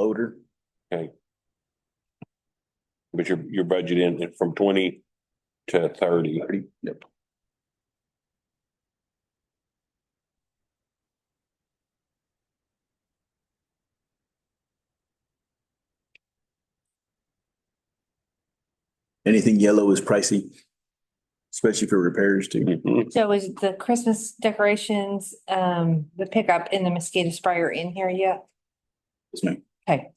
loader. But your, your budget in in from twenty to thirty. Thirty, yep. Anything yellow is pricey, especially for repairs too. Mhm. So is the Christmas decorations, um, the pickup and the mosquito sprayer in here yet? Yes, ma'am.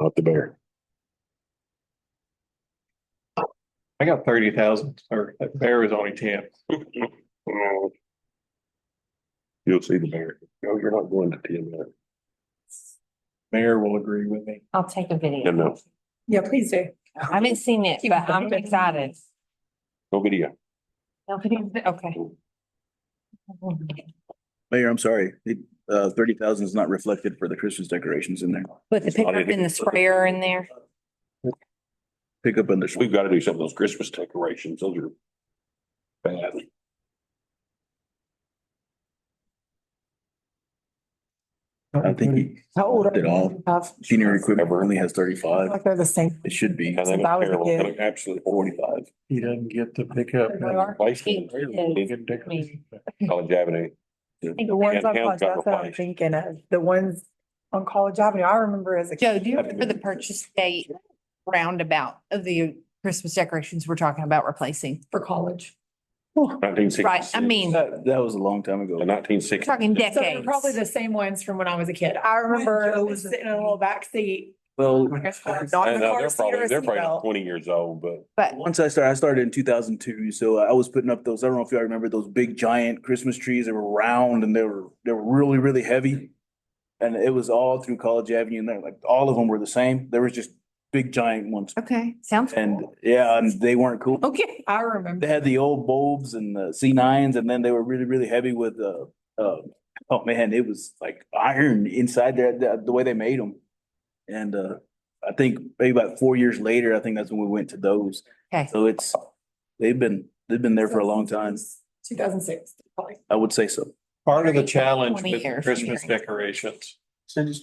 Not the bear. I got thirty thousand, or that bear was only ten. You'll see the bear. No, you're not going to ten minutes. Mayor will agree with me. I'll take a No, video. no, Yeah, please do. I haven't seen it, Keep but I'm moving. excited. no video. Nobody, okay. Mayor, I'm sorry, it, uh, thirty thousand is not reflected for the Christmas decorations in there. With the pickup and the sprayer in there. Pick up on the, We've got to do some of those Christmas decorations. Those are bad. I think he, How old are Did all- you? Have- senior equipment only has thirty-five. Like they're the same. It should be And they So look that was a terrible. They good- look Absolutely forty-five. He doesn't get to pick up. They are. College Avenue. The ones on Yeah, got College, that's what I'm replaced. thinking of, the ones on College Avenue, I remember as a. Joe, do you remember the purchase date roundabout of the Christmas decorations we're talking about replacing? For college. Nineteen sixty. Right, I mean, we're That, that was a long time ago. The nineteen sixty. talking So they're decades. probably the same ones from when I was a kid. I remember sitting in a little backseat. Well, Not in the car They're seat or probably, a they're probably seatbelt. twenty years old, but But once I started, I started in two thousand two, so I was putting up those, I don't know if y'all remember those big giant Christmas trees that were round and they were, they were really, really heavy. And it was all through College Avenue and they're like, all of them were the same. There was just big giant ones. Okay, sounds. And yeah, and they weren't cool. Okay, I They remember. had the old bulbs and the C nines and then they were really, really heavy with, uh, uh, oh man, it was like iron inside there, the, the way they made them. And, uh, I think maybe about four years later, I think that's when we went to those. Okay. So it's, they've been, they've been there for a long time. Two thousand six, probably. I would say so. Part of the challenge 20 years. with Christmas decorations is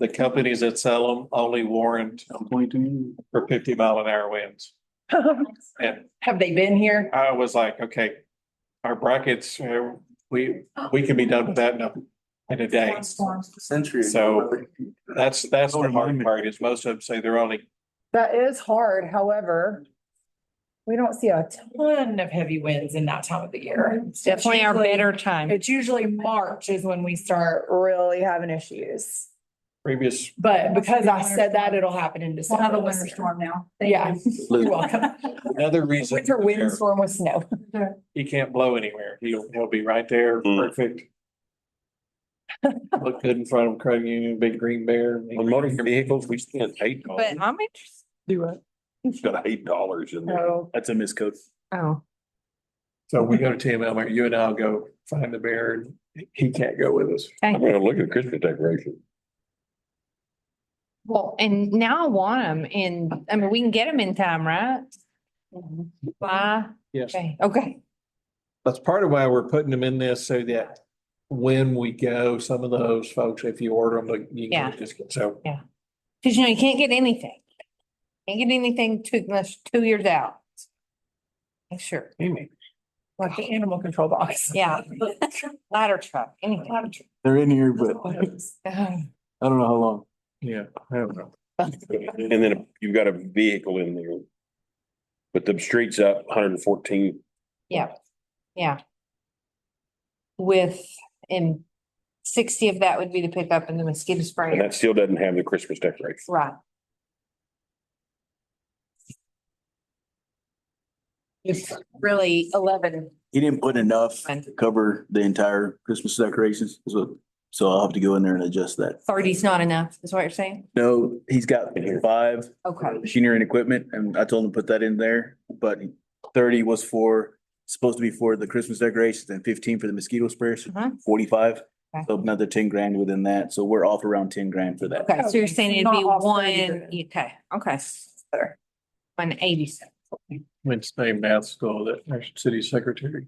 the companies that sell them only warrant for fifty mile an hour winds. And Have they been here? I was like, okay, our brackets, uh, we, we can be done with that in a, in a day. Century. So- That's, that's the hard part is most of them say they're only That is hard, however. We don't see a ton of heavy winds in that time of the year. Definitely our Usually- better time. It's usually March is when we start really having issues. previous But because I said that, it'll happen in We'll December. have a this winter year. storm now. Thank Yeah, you. you're welcome. Another reason. Winter windstorm with snow. He can't blow anywhere. He'll, he'll be right there, Hmm. perfect. Look good in front of Craig Union, big green bear. on motor vehicles, we spent eight dollars, But I'm interested. Do it. got eight dollars in there. No, That's a miscode. Oh, So we go to Tim Elmer, you and I'll go find the bear and he can't go with us. I'm gonna look at Christmas decorations. well, and now I want them and, I mean, we can get them in time, right? Why? Yes. Okay, okay. That's part of why we're putting them in this so that when we go, some of those folks, if you order them, like, you Yeah. can just, so. Cause you know, you can't get anything. Can't get anything two, unless two years out. Make Sure, Amy, Like the animal control box. yeah. Ladder truck, anything. They're in here, Ugh, I don't know how long. Yeah, I don't know. And then you've got a vehicle in there. But the street's up hundred and fourteen. Yeah. With, and sixty of that would be the pickup and the mosquito And sprayer, that still doesn't have the Christmas decoration. right? It's really eleven. He didn't put enough And- to cover the entire Christmas decorations, so, so I'll have to go in there and adjust that. Thirty's not enough, is what you're saying? No, he's got five Okay, machinery and equipment, and I told him to put that in there, but thirty was for, supposed to be for the Christmas decorations and fifteen for the mosquito sprayers, Uh-huh. forty-five. Okay. So another ten grand within that, so we're off around ten grand for that. okay, so you're saying it'd be Not off one, 30 grand. okay, okay. One eighty seven. Went to same math school that our city secretary.